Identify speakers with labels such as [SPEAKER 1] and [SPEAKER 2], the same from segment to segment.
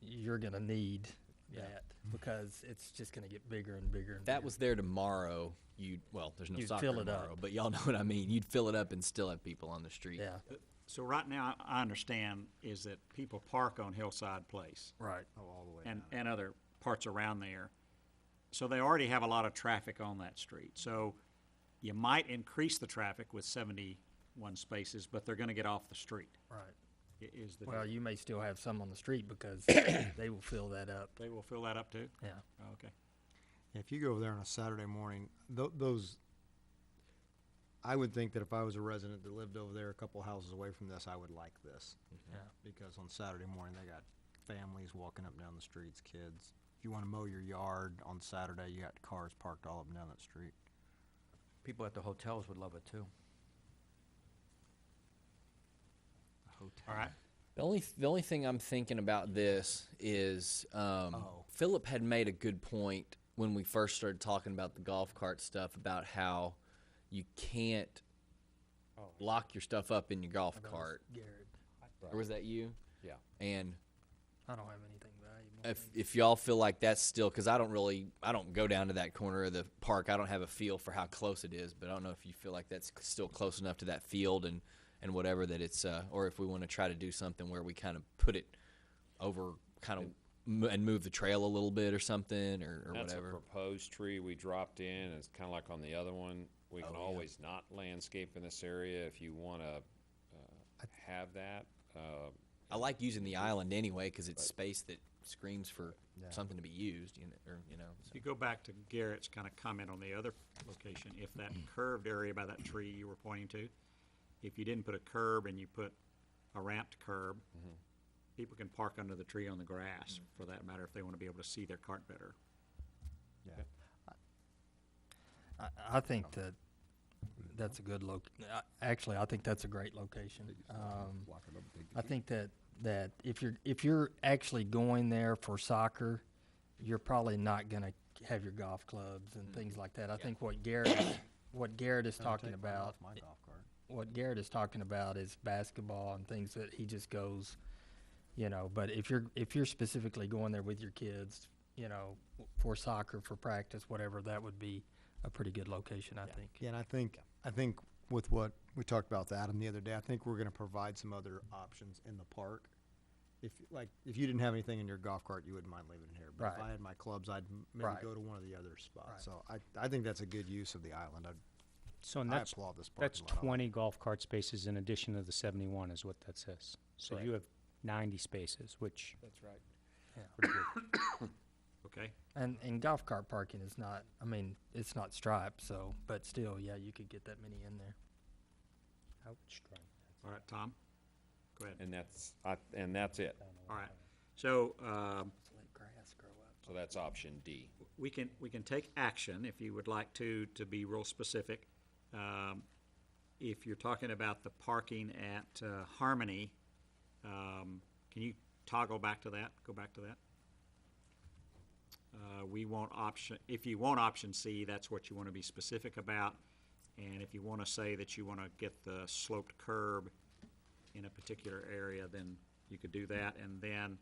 [SPEAKER 1] you're gonna need that because it's just gonna get bigger and bigger and
[SPEAKER 2] If that
[SPEAKER 1] bigger.
[SPEAKER 2] was there tomorrow, you'd well, there's no
[SPEAKER 1] You'd
[SPEAKER 2] soccer
[SPEAKER 1] fill it
[SPEAKER 2] tomorrow,
[SPEAKER 1] up.
[SPEAKER 2] but y'all know what I mean. You'd fill it up and still have people on the street.
[SPEAKER 1] yeah
[SPEAKER 3] So right now, I understand is that people park on Hillside Place
[SPEAKER 1] right
[SPEAKER 4] Oh,
[SPEAKER 3] and, and other parts around there. So they already have a lot of traffic on that street. So you might increase the traffic with seventy-one spaces, but they're gonna get off the street,
[SPEAKER 1] right.
[SPEAKER 3] i- is the,
[SPEAKER 1] Well, you may still have some on the street because they will fill that up.
[SPEAKER 3] they will fill that up too?
[SPEAKER 1] Yeah.
[SPEAKER 3] Okay.
[SPEAKER 5] If you go over there on a Saturday morning, tho- those, I would think that if I was a resident that lived over there a couple houses away from this, I would like this.
[SPEAKER 1] Yeah.
[SPEAKER 5] Because on Saturday morning, they got families walking up and down the streets, kids. If you wanna mow your yard on Saturday, you got cars parked all up and down that street.
[SPEAKER 4] People at the hotels would love it too.
[SPEAKER 3] All right.
[SPEAKER 2] The only the only thing I'm thinking about this is um,
[SPEAKER 5] Oh.
[SPEAKER 2] Philip had made a good point when we first started talking about the golf cart stuff about how you can't
[SPEAKER 1] Oh.
[SPEAKER 2] lock your stuff up in your golf
[SPEAKER 1] That was
[SPEAKER 2] cart.
[SPEAKER 1] Garrett.
[SPEAKER 2] Or was that you?
[SPEAKER 4] Yeah.
[SPEAKER 2] And
[SPEAKER 1] I don't have anything valuable.
[SPEAKER 2] if if y'all feel like that's still because I don't really I don't go down to that corner of the park. I don't have a feel for how close it is, but I don't know if you feel like that's c- still close enough to that field and and whatever that it's uh, or if we want to try to do something where we kind of put it over kind of m- and move the trail a little bit or something or, or
[SPEAKER 6] That's a
[SPEAKER 2] whatever.
[SPEAKER 6] proposed tree we dropped in, it's kinda like on the other one, we can always not landscape in this area if you wanna, uh, have that, uh,
[SPEAKER 2] I like using the island anyway because it's space that screams for something to be used, you know, or you know. so.
[SPEAKER 3] If you go back to Garrett's kind of comment on the other location, if that curved area by that tree you were pointing to, if you didn't put a curb and you put a ramped curb, people can park under the tree on the grass, for that matter, if they want to be able to see their cart better.
[SPEAKER 5] Yeah.
[SPEAKER 1] I, I think that that's a good loc. I- Actually, I think that's a great location. Um, I think that that if you're if you're actually going there for soccer, you're probably not gonna have your golf clubs
[SPEAKER 5] Mm-hmm.
[SPEAKER 1] and things like that. I think what Garrett is- what Garrett is talking about
[SPEAKER 5] My golf cart.
[SPEAKER 1] what Garrett is talking about is basketball and things that he just goes, you know. But if you're if you're specifically going there with your kids, you know, w- for soccer, for practice, whatever, that would be a pretty good location, I think.
[SPEAKER 5] Yeah, and I think, I think with what we talked about with Adam the other day, I think we're gonna provide some other options in the park. If, like, if you didn't have anything in your golf cart, you wouldn't mind leaving it here, but if
[SPEAKER 1] Right.
[SPEAKER 5] I had my clubs, I'd m- maybe
[SPEAKER 1] Right.
[SPEAKER 5] go to one of the other spots,
[SPEAKER 1] Right.
[SPEAKER 5] so I, I think that's a good use of the island, I,
[SPEAKER 7] So and
[SPEAKER 5] I
[SPEAKER 7] that's,
[SPEAKER 5] applaud this parking
[SPEAKER 7] that's
[SPEAKER 5] lot. I like it.
[SPEAKER 7] twenty golf cart spaces in addition to the seventy-one is what that says. So you have ninety spaces, which. That's
[SPEAKER 1] Yeah.
[SPEAKER 7] right. Pretty good.
[SPEAKER 3] Okay?
[SPEAKER 1] And and golf cart parking is not. I mean, it's not striped, so but still, yeah, you could get that many in there.
[SPEAKER 3] All right, Tom? Go ahead.
[SPEAKER 6] and that's, I, and that's it.
[SPEAKER 3] All right. So, um,
[SPEAKER 1] Let grass grow up.
[SPEAKER 6] So that's option D.
[SPEAKER 3] we can, we can take action if you would like to, to be real specific. Um, If you're talking about the parking at uh, Harmony, um, can you toggle back to that, go back to that? Uh, We want option, if you want option C, that's what you want to be specific about. And if you want to say that you want to get the sloped curb in a particular area, then you could do that. And then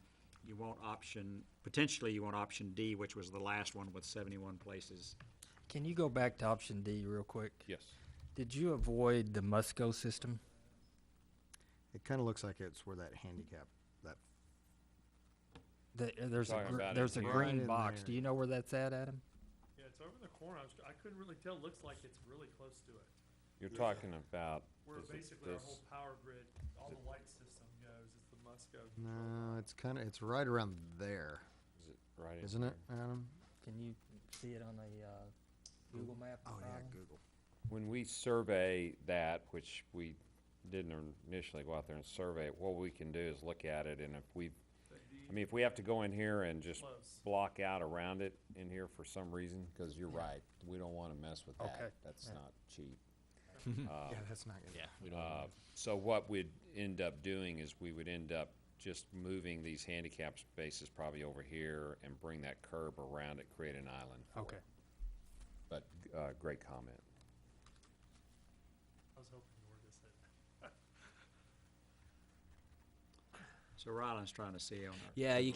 [SPEAKER 3] you want option, potentially you want option D, which was the last one with seventy-one places.
[SPEAKER 1] Can you go back to option D real quick?
[SPEAKER 6] Yes.
[SPEAKER 1] Did you avoid the Musco system?
[SPEAKER 5] It kinda looks like it's where that handicap, that,
[SPEAKER 1] The, there's a
[SPEAKER 6] Talking
[SPEAKER 1] gr-
[SPEAKER 6] about it
[SPEAKER 1] there's a
[SPEAKER 6] here.
[SPEAKER 5] Right
[SPEAKER 1] green
[SPEAKER 5] in
[SPEAKER 1] box.
[SPEAKER 5] there.
[SPEAKER 1] Do you know where that's at, Adam?
[SPEAKER 8] Yeah, it's over the corner. I, was, I couldn't really tell. Looks like it's really close to it.
[SPEAKER 6] You're talking about,
[SPEAKER 8] Where
[SPEAKER 6] is it
[SPEAKER 8] basically our
[SPEAKER 6] this,
[SPEAKER 8] whole power grid, all the light system goes. It's the Musco.
[SPEAKER 5] no, it's kinda, it's right around there,
[SPEAKER 6] is it right? in
[SPEAKER 5] isn't it,
[SPEAKER 6] here?
[SPEAKER 5] Adam?
[SPEAKER 1] Can you see it on the uh, Google map?
[SPEAKER 5] Oh, yeah,
[SPEAKER 1] probably?
[SPEAKER 5] Google.
[SPEAKER 6] When we survey that, which we didn't initially go out there and survey it, what we can do is look at it and if we, I mean, if we have to go in here and just
[SPEAKER 8] Close.
[SPEAKER 6] block out around it in here for some reason, cause you're right, we don't wanna mess with
[SPEAKER 1] Okay.
[SPEAKER 6] that. That's not cheap.
[SPEAKER 5] Yeah, that's not good.
[SPEAKER 2] We don't
[SPEAKER 6] Uh, So what we'd end up doing is we would end up just moving these handicap spaces probably over here and bring that curb around it, create an island. for it.
[SPEAKER 1] Okay.
[SPEAKER 6] But, uh, great comment.
[SPEAKER 8] I was hoping you were going to say that.
[SPEAKER 3] So Rylan's trying to see on our.
[SPEAKER 2] Yeah, you